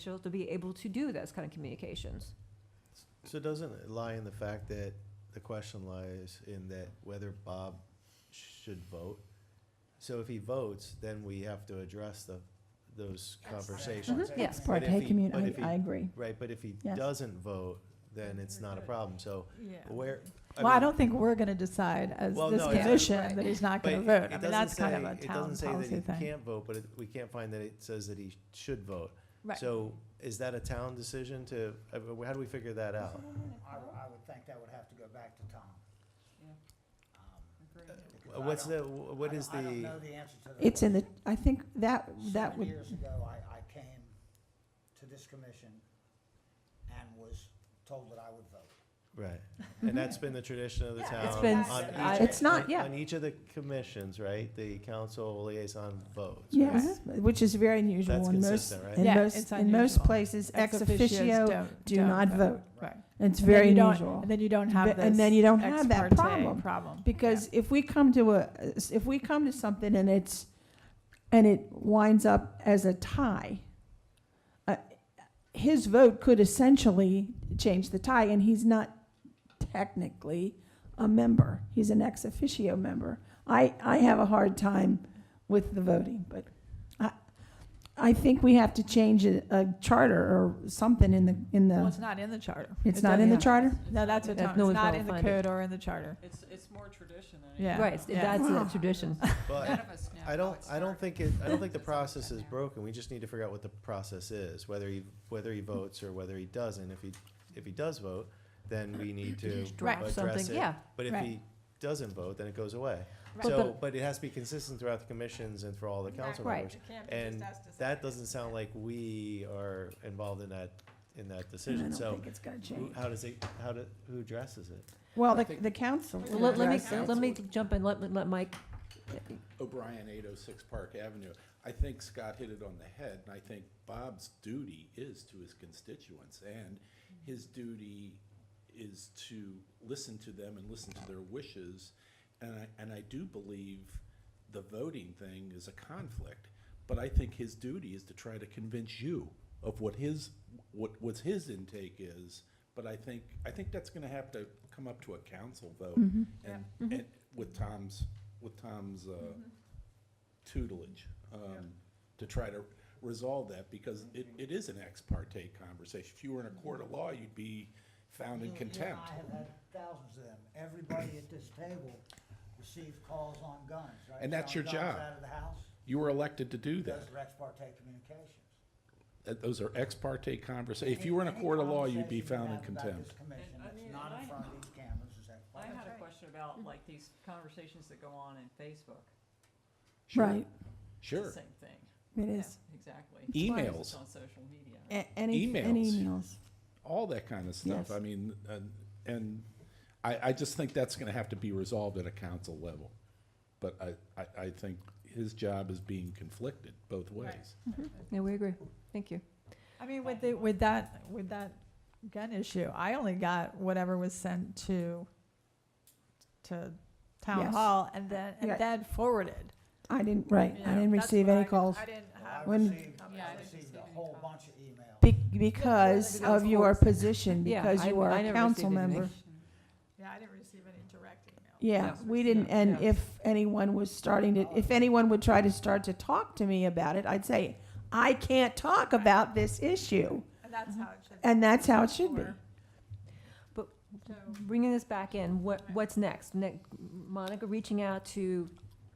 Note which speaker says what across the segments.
Speaker 1: official to be able to do those kind of communications.
Speaker 2: So doesn't it lie in the fact that, the question lies in that whether Bob should vote? So if he votes, then we have to address the, those conversations.
Speaker 1: Mhm, yeah.
Speaker 3: Ex
Speaker 2: But if
Speaker 3: parte
Speaker 2: he-
Speaker 3: commun,
Speaker 2: but if he-
Speaker 3: I, I agree.
Speaker 4: Mm-hmm.
Speaker 2: Right, but if he
Speaker 3: Yes.
Speaker 2: doesn't vote, then it's not a problem, so where.
Speaker 3: Well, I
Speaker 2: mean,
Speaker 3: don't think we're gonna decide as
Speaker 2: Well,
Speaker 3: this
Speaker 2: no, it's-
Speaker 3: commission that he's not
Speaker 2: but
Speaker 3: gonna
Speaker 2: it-
Speaker 3: vote.
Speaker 2: it
Speaker 3: I mean,
Speaker 2: doesn't
Speaker 3: that's kind of
Speaker 2: say-
Speaker 3: a town
Speaker 2: It doesn't say
Speaker 3: policy
Speaker 2: that he
Speaker 3: thing.
Speaker 2: can't vote, but it- we can't find that it says that he should vote.
Speaker 1: Right.
Speaker 2: So is that a town decision to, I mean, how do we figure that out?
Speaker 4: I, would- I would think that would have to go back to Tom. Um, because I
Speaker 2: Uh, What's
Speaker 4: don't-
Speaker 2: the, what
Speaker 4: Um, I
Speaker 2: is
Speaker 4: don't- I don't
Speaker 2: the,
Speaker 4: know the answer to that.
Speaker 3: It's in the, I think that, that
Speaker 4: Seven
Speaker 3: would,
Speaker 4: Years ago, I, I came to this commission and was told that I would vote.
Speaker 2: right, and that's been the tradition of the
Speaker 5: Yeah,
Speaker 2: town.
Speaker 3: it's been,
Speaker 2: on
Speaker 5: It's
Speaker 2: each-
Speaker 3: it's not,
Speaker 2: on-
Speaker 3: yeah.
Speaker 2: On each of the commissions, right, the council liaison votes. right?
Speaker 3: Yes, which is very unusual
Speaker 2: That's
Speaker 3: in most,
Speaker 2: consistent, right?
Speaker 3: in
Speaker 5: Yeah,
Speaker 3: most,
Speaker 5: it's
Speaker 3: in most
Speaker 5: unusual.
Speaker 3: places, ex officio,
Speaker 5: don't-
Speaker 3: do
Speaker 5: don't
Speaker 3: not vote.
Speaker 5: Right.
Speaker 3: It's
Speaker 5: And then
Speaker 3: very
Speaker 5: you don't-
Speaker 3: unusual.
Speaker 5: And then you don't
Speaker 3: But-
Speaker 5: have this.
Speaker 3: and then you don't
Speaker 5: ex
Speaker 3: have that
Speaker 5: parte
Speaker 3: problem.
Speaker 5: Problem.
Speaker 3: Because if we come to a, if we come to something and it's, and it winds up as a tie, uh, his vote could essentially change the tie, and he's not technically a member. He's an ex officio member. I, I have a hard time with the voting, but I, I think we have to change a, a charter or something in the, in
Speaker 5: Well,
Speaker 3: the,
Speaker 5: it's not in the charter.
Speaker 3: it's
Speaker 5: It
Speaker 3: not in the
Speaker 5: doesn't-
Speaker 3: charter?
Speaker 5: No, that's what
Speaker 1: That
Speaker 5: Tom,
Speaker 1: no
Speaker 5: it's
Speaker 1: one's
Speaker 5: not
Speaker 1: gonna
Speaker 5: in the
Speaker 1: find it.
Speaker 5: code or in the charter.
Speaker 6: It's, it's more tradition than
Speaker 5: Yeah.
Speaker 6: anything.
Speaker 1: Right, it's-
Speaker 5: Yeah.
Speaker 1: that's
Speaker 3: Wow.
Speaker 1: a tradition.
Speaker 2: But
Speaker 6: None of us know
Speaker 2: I
Speaker 6: how
Speaker 2: don't,
Speaker 6: it
Speaker 2: I don't
Speaker 6: started.
Speaker 2: think it, I don't think the
Speaker 6: That's all we
Speaker 2: process
Speaker 6: got
Speaker 2: is
Speaker 6: now.
Speaker 2: broken, we just need to figure out what the process is, whether he, whether he votes or whether he doesn't. If he, if he does vote, then we need to
Speaker 1: Draft
Speaker 2: address
Speaker 1: something,
Speaker 2: it.
Speaker 1: yeah.
Speaker 2: But if
Speaker 5: Right.
Speaker 2: he doesn't vote, then it goes away.
Speaker 1: Right.
Speaker 2: So,
Speaker 1: But-
Speaker 2: but it has to be consistent throughout the commissions and for all the council
Speaker 1: Right.
Speaker 2: members. And that doesn't sound like we are involved in that, in that
Speaker 3: I
Speaker 2: decision,
Speaker 3: don't
Speaker 2: so.
Speaker 3: think it's gonna
Speaker 2: Who,
Speaker 3: change.
Speaker 2: how does it, how do, who addresses it?
Speaker 3: Well, the, the council.
Speaker 1: Well, Let, let
Speaker 3: addressed
Speaker 1: me,
Speaker 3: it.
Speaker 1: let me jump in, let, let Mike,
Speaker 7: O'Brien, 806 Park Avenue. I think Scott hit it on the head, and I think Bob's duty is to his constituents, and his duty is to listen to them and listen to their wishes. And I, and I do believe the voting thing is a conflict, but I think his duty is to try to convince you of what his, what, what's his intake is. But I think, I think that's gonna have to come up to a council vote
Speaker 3: Mm-hmm.
Speaker 7: and, and with Tom's, with Tom's, uh,
Speaker 4: Mm-hmm.
Speaker 7: tutelage, um, to try to resolve that, because it,
Speaker 4: Mm-hmm.
Speaker 7: it is an ex parte conversation. If you were in a court of law, you'd be found
Speaker 4: You-
Speaker 7: in
Speaker 4: you and
Speaker 7: contempt.
Speaker 4: I have had thousands of them. Everybody at this table received calls on guns, right?
Speaker 7: And that's
Speaker 4: John
Speaker 7: your
Speaker 4: Guns
Speaker 7: job.
Speaker 4: Out of the house,
Speaker 7: You were elected to do that.
Speaker 4: those are ex parte communications.
Speaker 7: That- Those are ex parte conversations. If you were in a
Speaker 4: Any
Speaker 7: court of law, you'd
Speaker 4: conversation
Speaker 7: be
Speaker 4: you
Speaker 7: found in
Speaker 4: have about this
Speaker 7: contempt.
Speaker 4: commission
Speaker 6: And, I
Speaker 4: that's
Speaker 6: mean,
Speaker 4: not
Speaker 6: and
Speaker 4: in
Speaker 6: I-
Speaker 4: front of these cameras is ex
Speaker 6: I
Speaker 4: parte.
Speaker 6: had a question about like these conversations that go on in Facebook.
Speaker 7: Sure,
Speaker 3: Right,
Speaker 6: It's
Speaker 7: Sure.
Speaker 6: the same thing.
Speaker 3: it
Speaker 6: Yeah,
Speaker 3: is.
Speaker 6: Exactly.
Speaker 7: Emails.
Speaker 6: It's just On social media.
Speaker 3: A- Any, any
Speaker 7: Emails.
Speaker 3: emails.
Speaker 7: All that kind of stuff.
Speaker 3: Yes.
Speaker 7: I mean, and, and I, I just think that's going to have to be resolved at a council level. But I, I, I think his job is being conflicted both ways.
Speaker 1: yeah, we agree, thank you.
Speaker 5: I mean, with the, with that, with that gun issue, I only got whatever was sent to, to town
Speaker 3: Yes.
Speaker 5: hall and then,
Speaker 3: Yeah.
Speaker 5: and then forwarded.
Speaker 3: I didn't, right,
Speaker 5: you
Speaker 3: I
Speaker 5: know.
Speaker 3: didn't
Speaker 5: That's
Speaker 3: receive
Speaker 5: what
Speaker 3: any
Speaker 5: I-
Speaker 3: calls
Speaker 5: I didn't
Speaker 4: Well,
Speaker 5: have.
Speaker 4: I
Speaker 3: When-
Speaker 4: received,
Speaker 6: Yeah, I
Speaker 4: I
Speaker 6: didn't
Speaker 4: received
Speaker 6: receive
Speaker 4: a
Speaker 6: any
Speaker 4: whole
Speaker 6: calls.
Speaker 4: bunch of emails.
Speaker 3: be- because
Speaker 1: Yeah,
Speaker 3: of your
Speaker 1: of course.
Speaker 3: position,
Speaker 1: Yeah,
Speaker 3: because
Speaker 1: I-
Speaker 3: you are
Speaker 1: I
Speaker 3: a
Speaker 1: never
Speaker 3: council
Speaker 1: received anything.
Speaker 3: member.
Speaker 5: Yeah, I didn't receive any direct email.
Speaker 3: Yeah,
Speaker 6: Yeah.
Speaker 3: we didn't, and
Speaker 6: Yeah.
Speaker 3: if anyone was starting to, if anyone would try to start to talk to me about it, I'd say, I can't talk about this issue,
Speaker 5: Mm-hmm. And that's how it should be.
Speaker 3: and that's how it should be.
Speaker 5: So-
Speaker 1: Bringing this back in, what, what's next? Ne- Monica reaching out to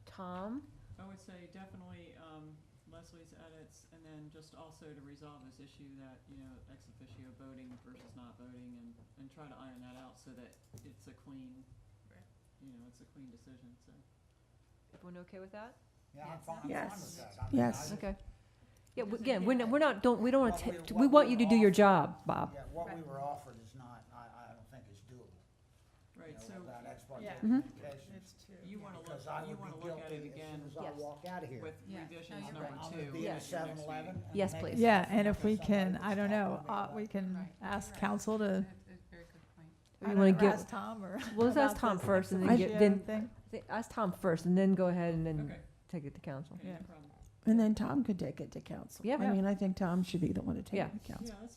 Speaker 1: Tom?
Speaker 6: I would say definitely um, Leslie's edits, and then just also to resolve this issue that, you know, ex officio voting versus not voting, and, and try to iron that out so that it's a clean, you know, it's a clean decision, so.
Speaker 1: Everyone okay with that?
Speaker 4: Yeah, I'm fine, I'm fine with
Speaker 3: Yes.
Speaker 4: that. I mean, I
Speaker 3: Yes.
Speaker 4: just-
Speaker 1: Okay. Yeah, w- again, we're not, we're not, don't, we don't want
Speaker 4: What we-
Speaker 1: to,
Speaker 4: what
Speaker 1: we want
Speaker 4: we
Speaker 1: you to do your
Speaker 4: offer.
Speaker 1: job,
Speaker 5: Uh,
Speaker 1: Bob.
Speaker 4: Yeah, what we were offered is not, I, I don't think is doable. you
Speaker 6: Right,
Speaker 4: know,
Speaker 6: so
Speaker 4: About ex parte
Speaker 5: Yeah.
Speaker 1: Mhm.
Speaker 4: communications.
Speaker 5: It's two.
Speaker 6: you want to look,
Speaker 4: Because I
Speaker 6: you
Speaker 4: would
Speaker 6: want to
Speaker 4: be
Speaker 6: look at
Speaker 4: guilty
Speaker 6: it
Speaker 4: as soon
Speaker 6: again
Speaker 4: as I
Speaker 1: Yes.
Speaker 4: walk out of here.
Speaker 6: with
Speaker 5: Yeah. No,
Speaker 6: revisions
Speaker 5: you're
Speaker 6: number
Speaker 4: I'm gonna
Speaker 6: two.
Speaker 4: be in a
Speaker 1: Yeah.
Speaker 6: at your next
Speaker 4: 7-Eleven
Speaker 6: meeting.
Speaker 4: and
Speaker 1: Yes,
Speaker 4: make a
Speaker 1: please.
Speaker 5: Yeah,
Speaker 4: decision
Speaker 5: and if
Speaker 4: after
Speaker 5: we
Speaker 4: somebody
Speaker 5: can,
Speaker 4: was
Speaker 5: I don't
Speaker 4: talking to me
Speaker 5: know, uh,
Speaker 4: about
Speaker 5: we
Speaker 4: it.
Speaker 5: can ask council to, I
Speaker 1: Or you
Speaker 5: don't
Speaker 1: wanna
Speaker 5: know, or
Speaker 1: give-
Speaker 5: ask Tom or.
Speaker 1: Well, let's ask
Speaker 5: about
Speaker 1: Tom
Speaker 5: this
Speaker 1: first and then
Speaker 5: ex
Speaker 1: get-
Speaker 5: officio
Speaker 1: then-
Speaker 5: thing.
Speaker 1: Ask Tom first and then go ahead and then
Speaker 6: Okay,
Speaker 1: take it to council.
Speaker 6: okay,
Speaker 5: Yeah.
Speaker 6: no problem.
Speaker 3: And then Tom could take it to council.
Speaker 1: Yeah.
Speaker 3: I mean, I think Tom should be the one to take
Speaker 1: Yeah.
Speaker 3: it to council.
Speaker 6: Yeah, that's